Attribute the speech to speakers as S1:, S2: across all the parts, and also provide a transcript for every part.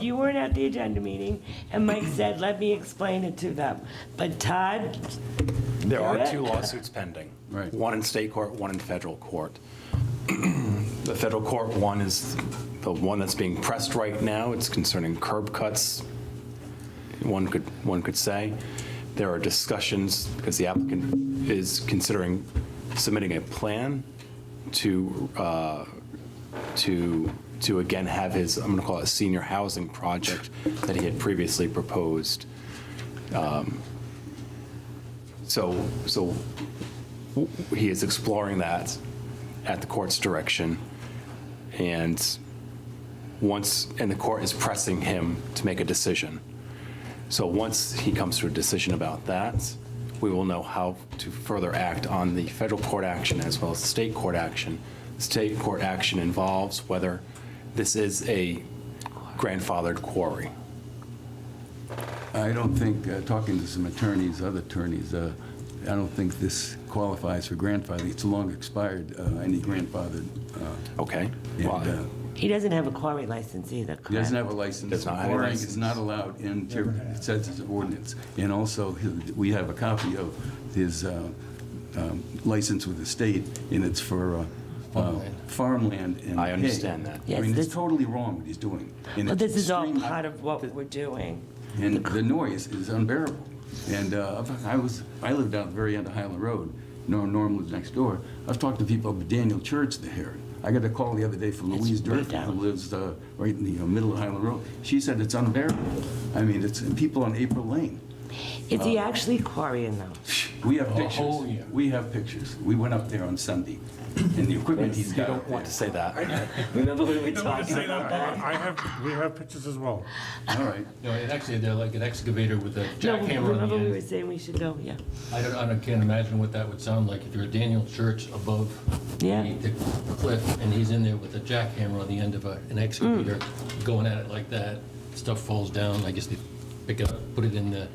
S1: You weren't at the agenda meeting, and Mike said, let me explain it to them. But Todd,
S2: There are
S1: Got
S2: two
S1: it.
S2: lawsuits pending.
S3: Right.
S2: One in state court, one in federal court. The federal court one is the one that's being pressed right now. It's concerning curb cuts, one could, one could say. There are discussions, because the applicant is considering submitting a plan to, uh, to, to again have his, I'm going to call it senior housing project that he had previously proposed. So, so w- he is exploring that at the court's direction. And once, and the court is pressing him to make a decision. So once he comes to a decision about that, we will know how to further act on the federal court action as well as the state court action. The State court action involves whether this is a grandfathered quarry.
S3: I don't think, uh, talking to some attorneys, other attorneys, uh, I don't think this qualifies for grandfathering. It's long expired, uh, any grandfathered. uh,
S2: Okay?
S3: and,
S2: Well,
S3: uh,
S1: he doesn't have a quarry license either,
S3: He doesn't have
S1: correct?
S3: a license.
S2: Does not have a
S3: Boring
S2: license.
S3: is not allowed in, Jer- it says it's an ordinance. And also, his- we have a copy of his uh, um, license with the state, and it's for uh, uh, farmland and
S2: I
S3: hay.
S2: understand that.
S3: I
S1: Yes,
S3: mean,
S1: this-
S3: it's totally wrong what he's doing. and
S1: But
S3: it's
S1: this is all
S3: extremely-
S1: part of what we're doing.
S3: and the noise is unbearable. And uh, I was, I lived out the very end of Highland Road. Norm, Norm lives next door. I was talking to people up at Daniel Church there. I got a call the other day from
S1: It's
S3: Louise
S1: way
S3: Durfee, who
S1: down.
S3: lives uh, right in the middle of Highland Road. She said it's unbearable. I mean, it's, and people on April Lane.
S1: Is
S3: Uh,
S1: he actually quarrying though?
S3: We have pictures.
S4: Oh, yeah.
S3: We have pictures. We went up there on Sunday, and the equipment he's
S2: You
S3: got
S2: don't
S3: up
S2: want to say
S3: there.
S2: that.
S1: Remember when we
S5: I
S1: talked about that?
S5: have, we have pictures as well.
S3: All right.
S4: No, it actually, they're like an excavator with a
S1: No,
S4: jackhammer on the
S1: remember we were
S4: end.
S1: saying we should go, yeah.
S4: I don't, I don't- can't imagine what that would sound like if you're a Daniel Church above
S1: Yeah.
S4: the the cliff, and he's in there with a jackhammer on the end of a- an excavator,
S1: Mm.
S4: going at it like that, stuff falls down, I guess they pick it up, put it in the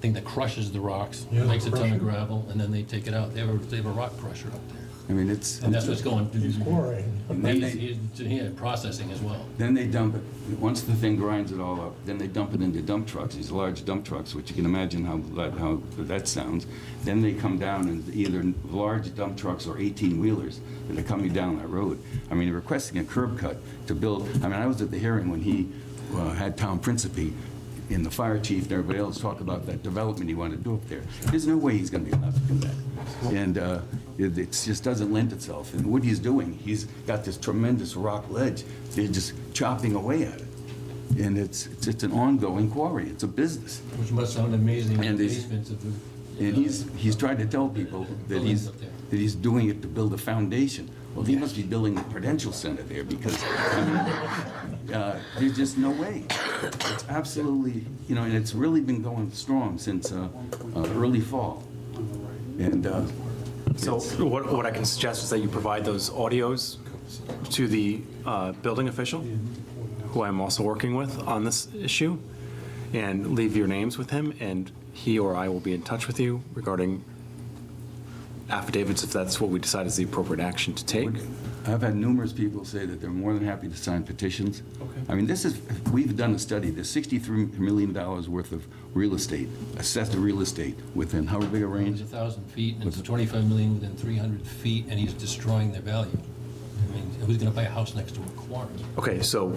S4: thing that crushes the rocks, makes a ton of gravel, and then they take it out, they have a, they have a rock crusher up there.
S3: I mean, it's.
S4: And that's what's going. He's quarrying.
S3: Then they-
S4: He's, yeah, processing as well.
S3: Then they dump it, once the thing grinds it all up, then they dump it into dump trucks, these large dump trucks, which you can imagine how, that- how that sounds. Then they come down in either large dump trucks or 18-wheelers that are coming down that road. I mean, requesting a curb cut to build, I mean, I was at the hearing when he uh, had Tom Principe and the fire chief and everybody else talk about that development he wanted to do up there. There's no way he's gonna be allowed to do that. And uh, it it just doesn't lend itself. And what he's doing, he's got this tremendous rock ledge, they're just chopping away at it. And it's, it's it's an ongoing quarry, it's a business.
S4: Which must sound amazing in
S3: And
S4: the
S3: these-
S4: basements of the.
S3: And he's, he's trying to tell people that he's, that he's doing it to build a foundation. Well, he must be building the Prudential Center there because, I mean, uh, there's just no way. It's absolutely, you know, and it's really been going strong since uh, uh, early fall. And uh,
S2: So what, what I can suggest is that you provide those audios to the uh, building official, who I'm also working with on this issue, and leave your names with him, and he or I will be in touch with you regarding affidavits, if that's what we decide is the appropriate action to take.
S3: I've had numerous people say that they're more than happy to sign petitions. I mean, this is, we've done a study, there's $63 million worth of real estate, assessed real estate within however big a range.
S4: It's a 1,000 feet, and it's 25 million within 300 feet, and he's destroying their value. I mean, who's going to buy a house next to a quarry?
S2: Okay, so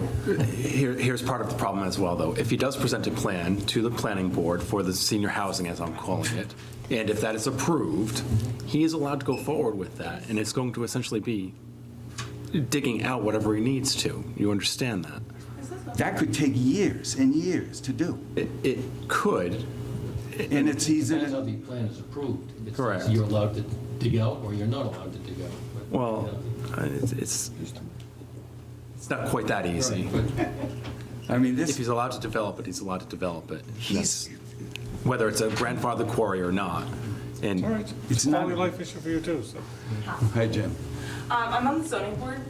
S2: here, here's part of the problem as well, though. If he does present a plan to the planning board for the senior housing, as I'm calling it, and if that is approved, he is allowed to go forward with that, and it's going to essentially be digging out whatever he needs to. You understand that?
S3: That could take years and years to do.
S2: It, it could,
S3: And it's, he's in,
S4: Depends how
S3: a-
S4: the plan is approved. It's-
S2: Correct.
S4: You're allowed to dig out, or you're not allowed to dig out. but, you
S2: well,
S4: know,
S2: uh, it's- it's, it's not quite that easy.
S4: But
S3: I mean,
S2: If
S3: this,
S2: he's allowed to develop it, he's allowed to develop it.
S3: He's-
S2: Whether it's a grandfather quarry or not. And
S5: All right, it's
S3: It's
S5: a
S3: not-
S5: quality life issue for you too, so.
S3: hi, Jim.
S6: Um, I'm on the zoning board,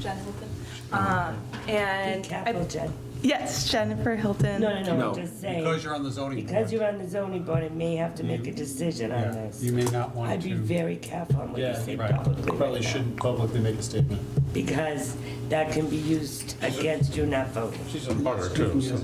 S6: Jen Hilton. Um,
S1: Big
S6: and I,
S1: capital, Jen.
S6: Yes, Jennifer Hilton.
S1: No, no, no,
S2: No.
S1: I'm just saying.
S7: Because you're on the zoning
S1: Because
S7: board.
S1: you're on the zoning board, I may have to make a decision on
S7: Yeah,
S1: this.
S7: You may not want
S1: I'd be
S7: to,
S1: very careful on what you
S8: Yeah,
S1: say
S4: right.
S1: publicly.
S8: Probably
S1: right now,
S8: shouldn't publicly make a statement.
S1: Because that can be used against you not voting.
S5: She's a butter too, so.